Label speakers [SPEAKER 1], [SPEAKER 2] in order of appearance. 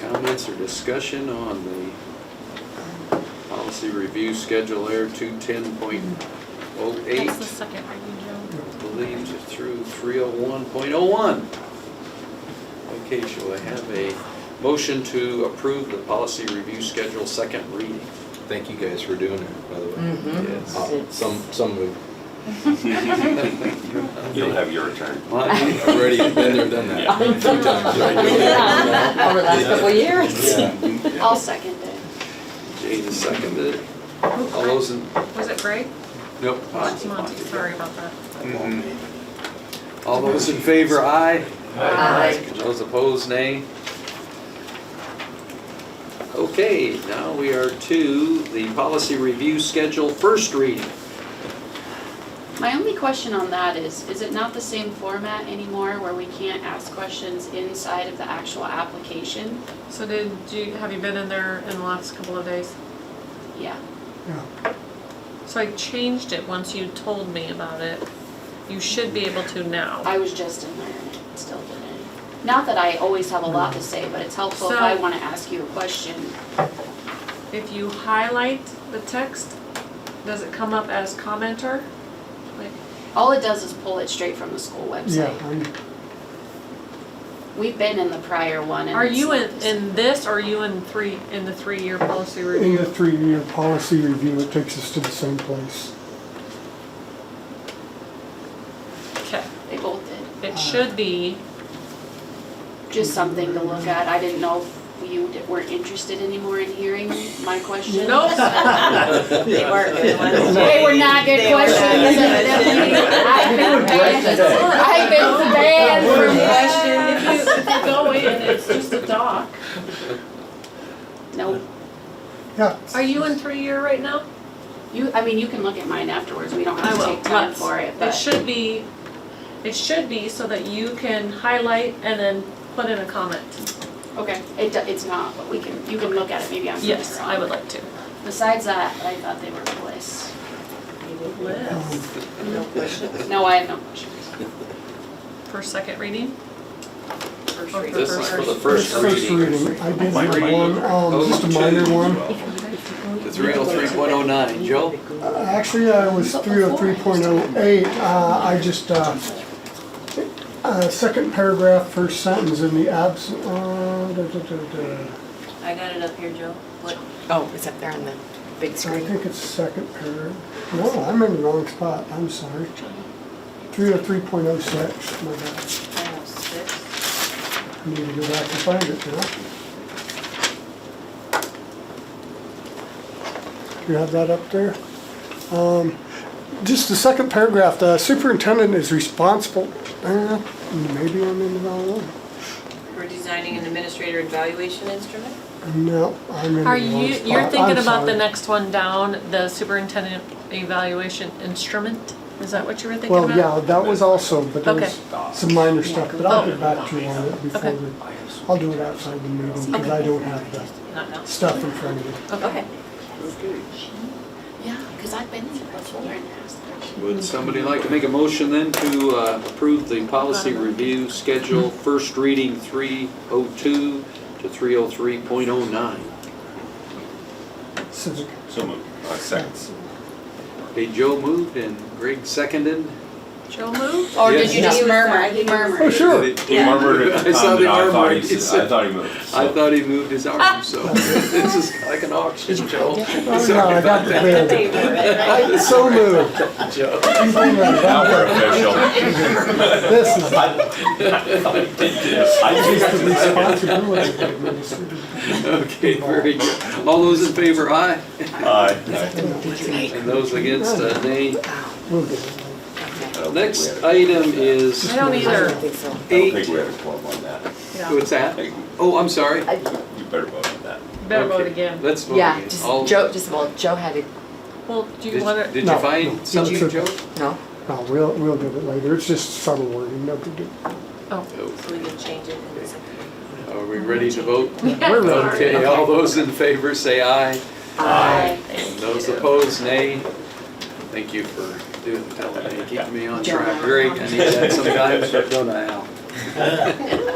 [SPEAKER 1] Comments or discussion on the policy review schedule air two ten point oh eight,
[SPEAKER 2] That's the second reading, Joe.
[SPEAKER 1] believed through three oh one point oh one. Okay, shall I have a motion to approve the policy review schedule second reading?
[SPEAKER 3] Thank you guys for doing it, by the
[SPEAKER 4] Mm.
[SPEAKER 3] way.
[SPEAKER 1] Yes.
[SPEAKER 3] Uh, Some, some move.
[SPEAKER 5] You'll have your turn.
[SPEAKER 1] Lonnie,
[SPEAKER 3] I've already been there, done that.
[SPEAKER 5] Yeah.
[SPEAKER 3] a few times, right?
[SPEAKER 4] Yeah. Over the last couple of years.
[SPEAKER 6] I'll second it.
[SPEAKER 1] Jane seconded it. All those in,
[SPEAKER 2] Was it Greg?
[SPEAKER 1] nope.
[SPEAKER 2] Monty, Monty, sorry about that.
[SPEAKER 1] All those in favor, aye.
[SPEAKER 4] Aye.
[SPEAKER 1] Those opposed, nay. Okay, now we are to the policy review schedule first reading.
[SPEAKER 6] My only question on that is, is it not the same format anymore where we can't ask questions inside of the actual application?
[SPEAKER 2] So did you, have you been in there in the last couple of days?
[SPEAKER 6] Yeah.
[SPEAKER 2] So I changed it once you told me about it. You should be able to now.
[SPEAKER 6] I was just in there and it still didn't. Not that I always have a lot to say, but it's helpful if
[SPEAKER 2] So-
[SPEAKER 6] I want to ask you a question.
[SPEAKER 2] If you highlight the text, does it come up as commenter? Like,
[SPEAKER 6] All it does is pull it straight from the school
[SPEAKER 7] Yeah,
[SPEAKER 6] website.
[SPEAKER 7] I'm,
[SPEAKER 6] We've been in the prior one and.
[SPEAKER 2] Are
[SPEAKER 6] it's
[SPEAKER 2] you
[SPEAKER 6] not
[SPEAKER 2] in,
[SPEAKER 6] the same.
[SPEAKER 2] in this, or are you in three, in the three-year policy
[SPEAKER 1] Mm.
[SPEAKER 7] in the
[SPEAKER 2] review?
[SPEAKER 7] three-year policy review, it takes us to the same place.
[SPEAKER 2] Okay,
[SPEAKER 6] They both did.
[SPEAKER 2] it should be,
[SPEAKER 6] Just something to look at. I didn't know if you d- weren't interested anymore in hearing my questions.
[SPEAKER 2] nope.
[SPEAKER 1] Mm-hmm.
[SPEAKER 4] They weren't good ones.
[SPEAKER 6] They were not good
[SPEAKER 4] They were not
[SPEAKER 6] questions.
[SPEAKER 4] good questions.
[SPEAKER 6] I've been banned, I've been banned from
[SPEAKER 2] If
[SPEAKER 6] questions.
[SPEAKER 2] you, if you go in, it's just a doc.
[SPEAKER 6] No,
[SPEAKER 7] Yeah.
[SPEAKER 2] Are you in three-year right now?
[SPEAKER 6] you, I mean, you can look at mine afterwards, we don't
[SPEAKER 2] I
[SPEAKER 6] have to
[SPEAKER 2] will,
[SPEAKER 6] take time
[SPEAKER 2] let's.
[SPEAKER 6] for it,
[SPEAKER 2] It
[SPEAKER 6] but
[SPEAKER 2] should be, it should be so that you can highlight and then put in a comment.
[SPEAKER 6] Okay. It, do- it's not, but we can, you can look at it, maybe I'm further
[SPEAKER 2] Yes, I
[SPEAKER 6] on.
[SPEAKER 2] would like to.
[SPEAKER 6] Besides that, I thought they were bliss.
[SPEAKER 2] Liz,
[SPEAKER 4] No questions.
[SPEAKER 6] No, I have no questions.
[SPEAKER 2] for second reading?
[SPEAKER 6] First
[SPEAKER 2] Or
[SPEAKER 6] reading.
[SPEAKER 1] This is for the first
[SPEAKER 7] First
[SPEAKER 1] reading.
[SPEAKER 7] reading, I did
[SPEAKER 5] Minor
[SPEAKER 7] have one,
[SPEAKER 5] reading.
[SPEAKER 7] um, just a minor one.
[SPEAKER 1] To 303.09, Joe?
[SPEAKER 7] Uh, Actually, I was three oh three point oh eight, uh, I just, uh, uh, second paragraph, first sentence in the absent, uh, da, da, da, da.
[SPEAKER 4] I got it up here, Joe. Oh, it's up there on the big
[SPEAKER 7] I think it's second paragraph. No, I'm in the wrong spot, I'm sorry. Three oh three point oh six, my bad. I need to go back and find it now. You have that up there? Um, Just the second paragraph, the superintendent is responsible, uh, maybe I'm in the wrong one.
[SPEAKER 4] We're designing an administrator evaluation instrument?
[SPEAKER 7] No, I'm in the wrong spot.
[SPEAKER 2] Are you, you're
[SPEAKER 7] I'm
[SPEAKER 2] thinking about the
[SPEAKER 7] sorry.
[SPEAKER 2] next one down, the superintendent evaluation instrument? Is that what you were thinking about?
[SPEAKER 7] Well, yeah, that was also, but there was some minor stuff, but I'll
[SPEAKER 2] Oh.
[SPEAKER 7] get back to you on it before
[SPEAKER 2] Okay.
[SPEAKER 7] we, I'll do it outside the meeting, because I don't have the
[SPEAKER 4] Not now.
[SPEAKER 7] stuff in front of me.
[SPEAKER 4] Okay.
[SPEAKER 1] Okay.
[SPEAKER 6] Yeah, because I've been there before and asked questions.
[SPEAKER 1] Would somebody like to make a motion then to uh, approve the policy review schedule first reading 302 to 303.09?
[SPEAKER 7] So,
[SPEAKER 5] So moved. Uh, Seconds.
[SPEAKER 1] Okay, Joe moved and Greg seconded.
[SPEAKER 2] Joe moved?
[SPEAKER 6] Or
[SPEAKER 1] Yes.
[SPEAKER 6] did you just murmur? He murmured.
[SPEAKER 7] Oh, sure.
[SPEAKER 5] He murmured at
[SPEAKER 1] I
[SPEAKER 5] the
[SPEAKER 1] saw
[SPEAKER 5] time,
[SPEAKER 1] the
[SPEAKER 5] and I thought
[SPEAKER 1] armored.
[SPEAKER 5] he, s- I thought he moved. so-
[SPEAKER 1] I thought he moved his
[SPEAKER 2] Ah.
[SPEAKER 1] arm, so this is like an auction, Joe.
[SPEAKER 7] Oh, no,
[SPEAKER 1] Sorry
[SPEAKER 7] I
[SPEAKER 1] about
[SPEAKER 7] got the
[SPEAKER 1] that,
[SPEAKER 7] bid. I was so moved.
[SPEAKER 1] Joe.
[SPEAKER 7] You think I'm
[SPEAKER 5] Now
[SPEAKER 7] dumb?
[SPEAKER 5] we're official.
[SPEAKER 7] This is the
[SPEAKER 5] I
[SPEAKER 7] responsibility of the administrator.
[SPEAKER 1] Okay, very good. All those in favor, aye.
[SPEAKER 5] just- Aye.
[SPEAKER 1] And those against, uh, nay.
[SPEAKER 4] Oh,
[SPEAKER 7] We'll get it later.
[SPEAKER 1] Next item is
[SPEAKER 2] I don't either.
[SPEAKER 4] so.
[SPEAKER 5] I don't think
[SPEAKER 1] eight,
[SPEAKER 5] we have a quorum on that.
[SPEAKER 2] Yeah,
[SPEAKER 1] what's
[SPEAKER 5] I
[SPEAKER 1] that?
[SPEAKER 5] think
[SPEAKER 1] Oh, I'm sorry.
[SPEAKER 5] You better vote on that.
[SPEAKER 2] better vote
[SPEAKER 1] Okay,
[SPEAKER 2] again.
[SPEAKER 1] Let's vote
[SPEAKER 4] Yeah,
[SPEAKER 1] again.
[SPEAKER 4] just,
[SPEAKER 1] All-
[SPEAKER 4] Joe, just, well, Joe had it,
[SPEAKER 2] Well, do you
[SPEAKER 1] Did-
[SPEAKER 2] want to,
[SPEAKER 1] Did you
[SPEAKER 7] No, no.
[SPEAKER 1] find
[SPEAKER 7] Did
[SPEAKER 1] something,
[SPEAKER 7] you-
[SPEAKER 1] Joe?
[SPEAKER 4] no?
[SPEAKER 7] No, we'll, we'll get it later, it's just subtle wording, no big deal.
[SPEAKER 2] oh.
[SPEAKER 4] we can change it. in a second.
[SPEAKER 1] Oh, Are we ready to vote?
[SPEAKER 2] We're
[SPEAKER 1] Okay, all those in favor say aye.
[SPEAKER 6] Aye.
[SPEAKER 1] And those opposed, nay. Thank you for doing, telling me, keeping me on track. Greg, I need that sometimes, don't I, Al?